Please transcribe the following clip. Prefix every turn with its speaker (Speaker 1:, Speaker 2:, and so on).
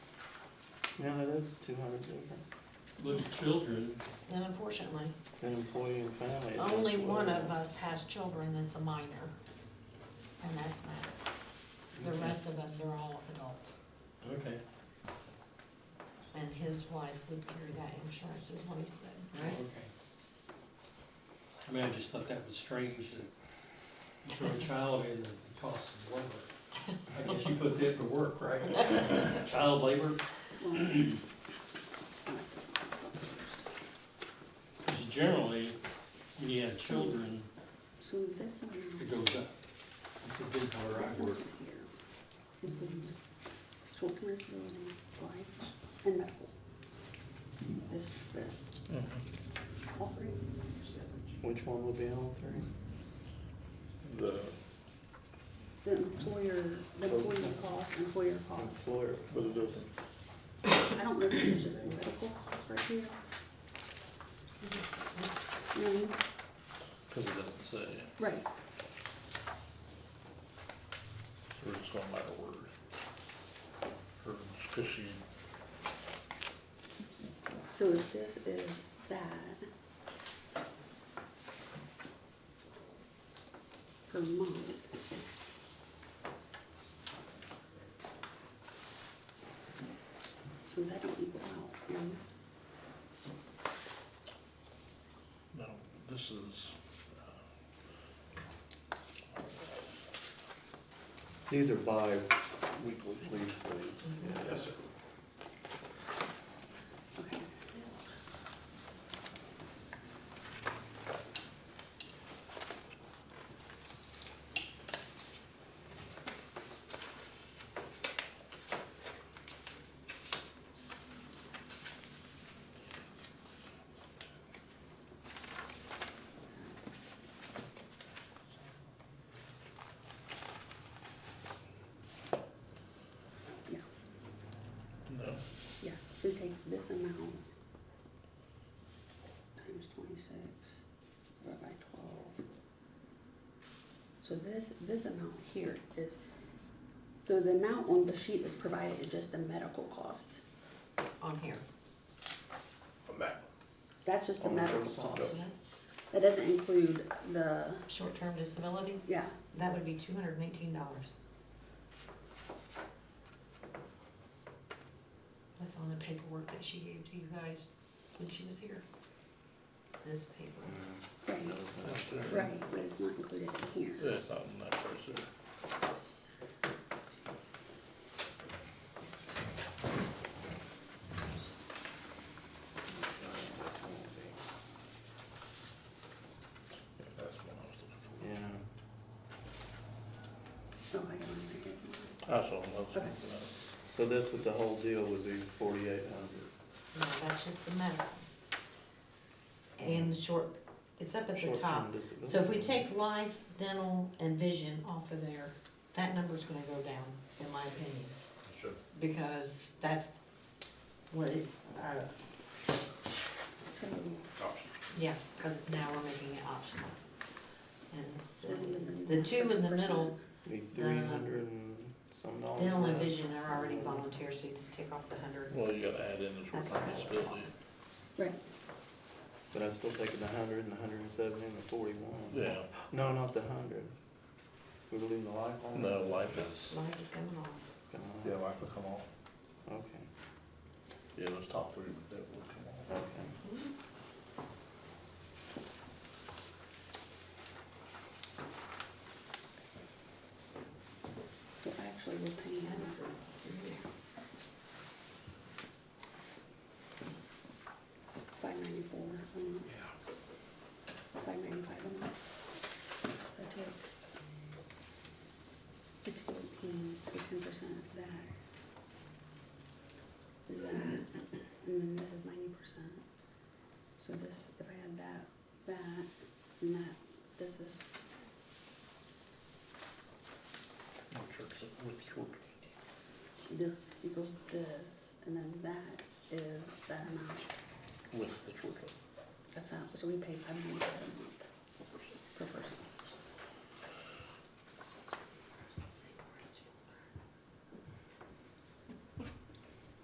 Speaker 1: You know, that is two hundred different
Speaker 2: Little children,
Speaker 3: And unfortunately,
Speaker 1: than employee and family. is
Speaker 3: only
Speaker 1: actually-
Speaker 3: one of us has children that's a minor, and that's Matt. The rest of us are all adults,
Speaker 2: okay,
Speaker 3: and his wife would carry that insurance, is what he said,
Speaker 2: okay.
Speaker 3: right?
Speaker 2: I mean, I just thought that was strange that you throw a child in and it costs them labor. I guess you put that to work, right? Child labor, because generally, when you have children,
Speaker 4: So this
Speaker 2: it
Speaker 4: one,
Speaker 2: goes up. It's a big part
Speaker 4: this
Speaker 2: I
Speaker 4: one
Speaker 2: work.
Speaker 4: right here. And then Children's building, life, and medical. This, this, all three.
Speaker 1: Which one would be all three?
Speaker 5: The,
Speaker 4: The employer, the employer cost, employer cost.
Speaker 1: Employer,
Speaker 5: but it doesn't,
Speaker 4: I don't know if this is just the medical cost right here.
Speaker 3: He just-
Speaker 4: You know what I mean?
Speaker 5: cause it doesn't say, so
Speaker 4: Right.
Speaker 5: we're just going by the word. Or, cause she,
Speaker 4: So if this is that per month. So that don't equal out, you know?
Speaker 5: no, this is,
Speaker 1: these are bi-weekly leave
Speaker 3: Mm-hmm.
Speaker 1: days.
Speaker 2: Yes, sir.
Speaker 4: okay.
Speaker 5: no,
Speaker 4: Yeah, so take this amount times twenty-six, divided by twelve. So this, this amount here is, so the amount on the sheet that's provided is just the medical cost.
Speaker 3: On here,
Speaker 4: That's just the
Speaker 1: On the
Speaker 4: medical
Speaker 1: first
Speaker 4: cost.
Speaker 3: one.
Speaker 4: That doesn't include the,
Speaker 3: short-term disability,
Speaker 4: yeah,
Speaker 3: that would be two hundred and eighteen dollars. That's on the paperwork that she gave to you guys when she was here. This paper.
Speaker 4: right,
Speaker 5: that's there.
Speaker 4: right, but it's not included in here.
Speaker 5: Yeah, it's not in that price there. Yeah, That's what I was looking
Speaker 1: Yeah,
Speaker 4: So Oh, I don't think it-
Speaker 5: for. I saw them, I was
Speaker 4: Okay.
Speaker 5: looking for that.
Speaker 1: so this with the whole deal would be forty-eight hundred.
Speaker 3: No, that's just the medical. And the short, it's up at the top. So if we take life, dental, and vision off of there, that number's gonna go down, in my opinion.
Speaker 5: Sure.
Speaker 3: Because that's what it's, uh,
Speaker 4: So,
Speaker 3: yeah, cause now we're making it optional. And so,
Speaker 4: And then
Speaker 3: the two in the middle,
Speaker 1: Be three hundred and some dollars.
Speaker 3: dental and
Speaker 1: less.
Speaker 3: vision are already volunteer, so you just take off the hundred.
Speaker 5: Well, you gotta add in the short term disability.
Speaker 4: right,
Speaker 1: But I still taking the hundred and the hundred and seventy and the forty-one.
Speaker 5: Yeah,
Speaker 1: No, not the hundred. We're leaving the life on?
Speaker 5: no, life is,
Speaker 3: Life is coming off.
Speaker 1: Gone.
Speaker 5: yeah, life would come off.
Speaker 1: Okay,
Speaker 5: Yeah, those top three, that would come off.
Speaker 1: okay.
Speaker 4: so actually we're paying. five ninety-four a month. Five ninety-five a month. So I take the two eighteen, so ten percent of that. Is that, and then this is ninety percent. So this, if I add that, that, and that, this is,
Speaker 5: Which short- which short-
Speaker 4: this equals this, and then that is that amount.
Speaker 5: With the short term.
Speaker 4: That's how, so we pay five ninety-five a month per person.